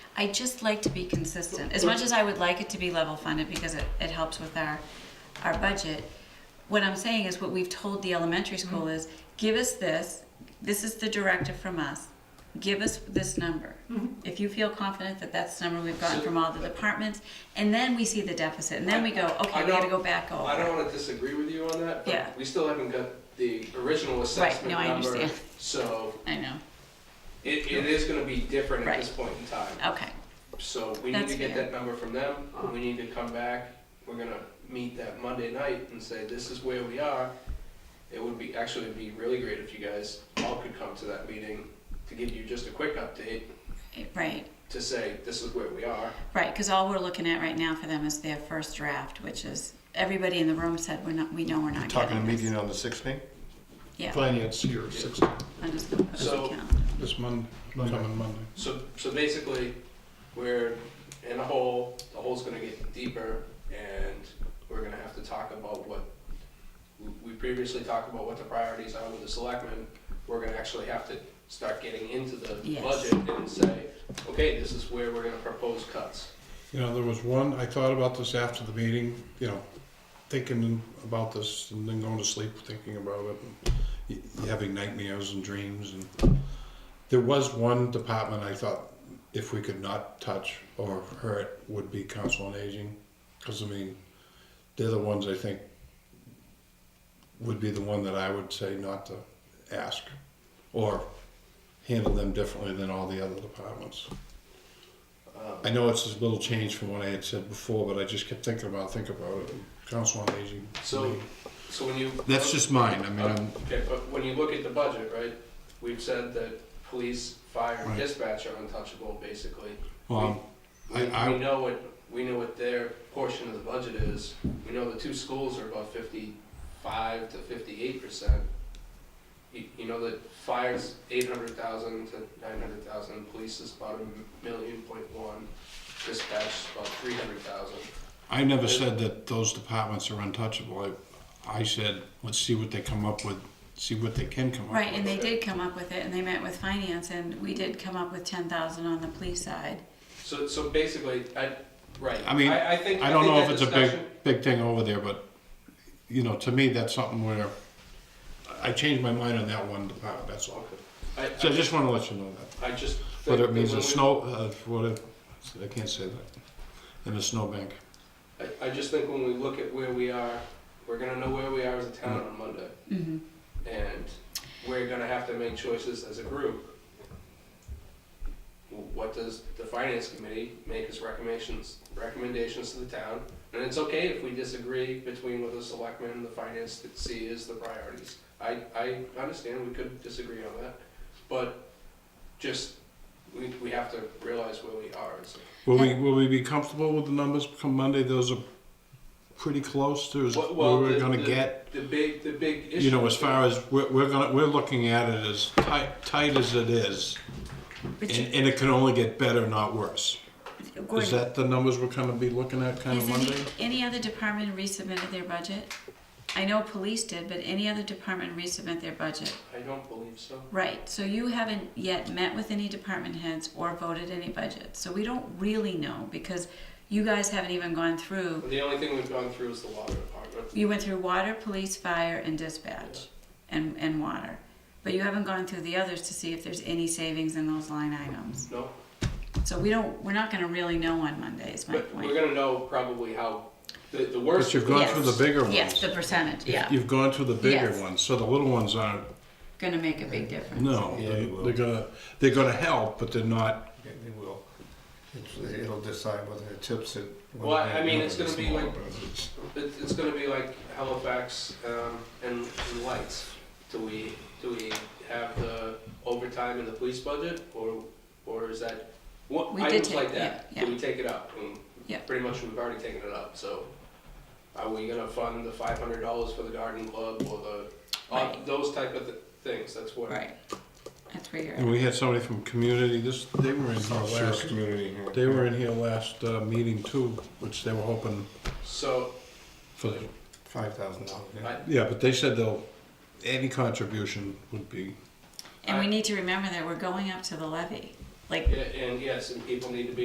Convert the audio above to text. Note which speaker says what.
Speaker 1: I just like to be consistent. As much as I would like it to be level funded because it, it helps with our, our budget, what I'm saying is what we've told the elementary school is, give us this, this is the directive from us, give us this number. If you feel confident that that's the number we've gotten from all the departments, and then we see the deficit, and then we go, okay,
Speaker 2: I
Speaker 1: we gotta
Speaker 2: don't-
Speaker 1: go back over.
Speaker 2: I don't wanna disagree with you on that,
Speaker 1: Yeah.
Speaker 2: but we still haven't got the original assessment
Speaker 1: no, I
Speaker 2: number,
Speaker 1: understand.
Speaker 2: so
Speaker 1: I know,
Speaker 2: it, it is gonna be different at
Speaker 1: Right.
Speaker 2: this point in time.
Speaker 1: okay,
Speaker 2: So we need
Speaker 1: That's
Speaker 2: to get
Speaker 1: fair.
Speaker 2: that number from them, we need to come back, we're gonna meet that Monday night and say, this is where we are. It would be, actually it'd be really great if you guys all could come to that meeting to give you just a quick update
Speaker 1: right,
Speaker 2: to say, this is where we are.
Speaker 1: right, cause all we're looking at right now for them is their first draft, which is, everybody in the room said, we're not, we know we're not
Speaker 3: Talking a
Speaker 1: getting this.
Speaker 3: meeting on the 16th?
Speaker 1: Yeah,
Speaker 4: Finance here, six,
Speaker 1: I'm just gonna put it
Speaker 2: So-
Speaker 1: on the calendar.
Speaker 4: this Monday, coming Monday.
Speaker 2: So, so basically, we're in a hole, the hole's gonna get deeper, and we're gonna have to talk about what, we- we previously talked about what the priorities are with the selectmen, we're gonna actually have to start getting into the
Speaker 1: Yes.
Speaker 2: budget and say, okay, this is where we're gonna propose cuts.
Speaker 4: You know, there was one, I thought about this after the meeting, you know, thinking about this and then going to sleep thinking about it. and y- Having nightmares and dreams and, there was one department I thought if we could not touch or hurt would be council on aging. Cause I mean, they're the ones I think would be the one that I would say not to ask or handle them differently than all the other departments. I know it's a little change from what I had said before, but I just kept thinking about, thinking about it. Council on Aging.
Speaker 2: So, so when you. Uh,
Speaker 4: That's just mine, I mean, I'm,
Speaker 2: Okay, but when you look at the budget, right, we've said that police, fire, and
Speaker 4: Right.
Speaker 2: dispatch are untouchable, basically.
Speaker 4: um, I,
Speaker 2: We
Speaker 4: I,
Speaker 2: know what, we know what their portion of the budget is. We know the two schools are about fifty-five to fifty-eight percent. You, you know that fire's eight hundred thousand to nine hundred thousand, police is about a million point one, dispatch is about three hundred thousand.
Speaker 4: I never said that those departments are untouchable. I, I said, let's see what they come up with, see what they can come up with.
Speaker 1: Right, and they did come up with it, and they met with finance, and we did come up with ten thousand on the police side.
Speaker 2: So, so basically, I, right.
Speaker 4: I mean,
Speaker 2: I think-
Speaker 4: I don't
Speaker 2: think
Speaker 4: know if
Speaker 2: that
Speaker 4: it's a big,
Speaker 2: discussion-
Speaker 4: big thing over there, but, you know, to me, that's something where I changed my mind on that one department, that's all.
Speaker 2: I,
Speaker 4: So I just wanna let you know that.
Speaker 2: I, I just. think
Speaker 4: Whether it
Speaker 2: that
Speaker 4: means
Speaker 2: when
Speaker 4: a
Speaker 2: we-
Speaker 4: snow, uh, what if, I can't say that, in a snowbank.
Speaker 2: I, I just think when we look at where we are, we're gonna know where we are as a town on Monday.
Speaker 1: Mm-hmm.
Speaker 2: and we're gonna have to make choices as a group. What does the finance committee make as recommendations, recommendations to the town? And it's okay if we disagree between what the selectmen and the finance that see is the priorities. I, I understand we could disagree on that, but just, we, we have to realize where we are. It's-
Speaker 4: Will we, will we be comfortable with the numbers come Monday? Those are pretty close to as-
Speaker 2: Well,
Speaker 4: where
Speaker 2: the-
Speaker 4: we're gonna
Speaker 2: the-
Speaker 4: get.
Speaker 2: The big, the big issue.
Speaker 4: You know, as far as, we're, we're gonna, we're looking at it as tight, tight as it is. And, and it can only get better, not worse. Is
Speaker 1: Gordon,
Speaker 4: that the numbers we're gonna be looking at kind
Speaker 1: has
Speaker 4: of
Speaker 1: any,
Speaker 4: Monday?
Speaker 1: any other department resubmitted their budget? I know police did, but any other department resubmit their budget?
Speaker 2: I don't believe so.
Speaker 1: Right, so you haven't yet met with any department heads or voted any budget, so we don't really know, because you guys haven't even gone through,
Speaker 2: The only thing we've gone through is the water department.
Speaker 1: you went through water, police, fire, and dispatch, and, and water. But you haven't gone through the others to see if there's any savings in those line items.
Speaker 2: No,
Speaker 1: So we don't, we're not gonna really know on Monday, is my
Speaker 2: But we're
Speaker 1: point.
Speaker 2: gonna know probably how, the, the worst.
Speaker 4: But you've gone
Speaker 1: Yes.
Speaker 4: through the bigger ones.
Speaker 1: Yes, the percentage, yeah,
Speaker 4: You've gone through the bigger
Speaker 1: Yes.
Speaker 4: ones, so the little ones aren't,
Speaker 1: gonna make a big difference.
Speaker 4: no,
Speaker 3: Yeah,
Speaker 4: they're
Speaker 3: it will.
Speaker 4: they're gonna, they're gonna help, but they're not,
Speaker 3: Yeah, It will. It's- It'll decide whether it tips it. whether
Speaker 2: Well, I
Speaker 3: they
Speaker 2: mean,
Speaker 3: know
Speaker 2: it's
Speaker 3: that
Speaker 2: gonna be
Speaker 3: small,
Speaker 2: like-
Speaker 3: but it's-
Speaker 2: It, it's gonna be like Halifax, um, and, and lights. Do we, do we have the overtime in the police budget, or, or is that, what,
Speaker 1: We did
Speaker 2: items
Speaker 1: take-
Speaker 2: like that?
Speaker 1: yeah,
Speaker 2: Do we
Speaker 1: yeah.
Speaker 2: take it up? And
Speaker 1: Yeah.
Speaker 2: Pretty much we've already taken it up, so are we gonna fund the five hundred dollars for the garden club or the, uh,
Speaker 1: Right.
Speaker 2: those type of th- things, that's what.
Speaker 1: Right, that's where you're
Speaker 4: and
Speaker 1: at.
Speaker 4: we had somebody from community, this, they were in here
Speaker 3: Oh, sure,
Speaker 4: last,
Speaker 3: community here.
Speaker 4: they were in here last, uh, meeting too, which they were hoping
Speaker 2: So,
Speaker 4: for the,
Speaker 3: Five thousand dollars, yeah.
Speaker 2: I,
Speaker 4: yeah, but they said they'll, any contribution would be,
Speaker 1: And we need to remember that we're going up to the levy, like,
Speaker 2: and yes, and people need to be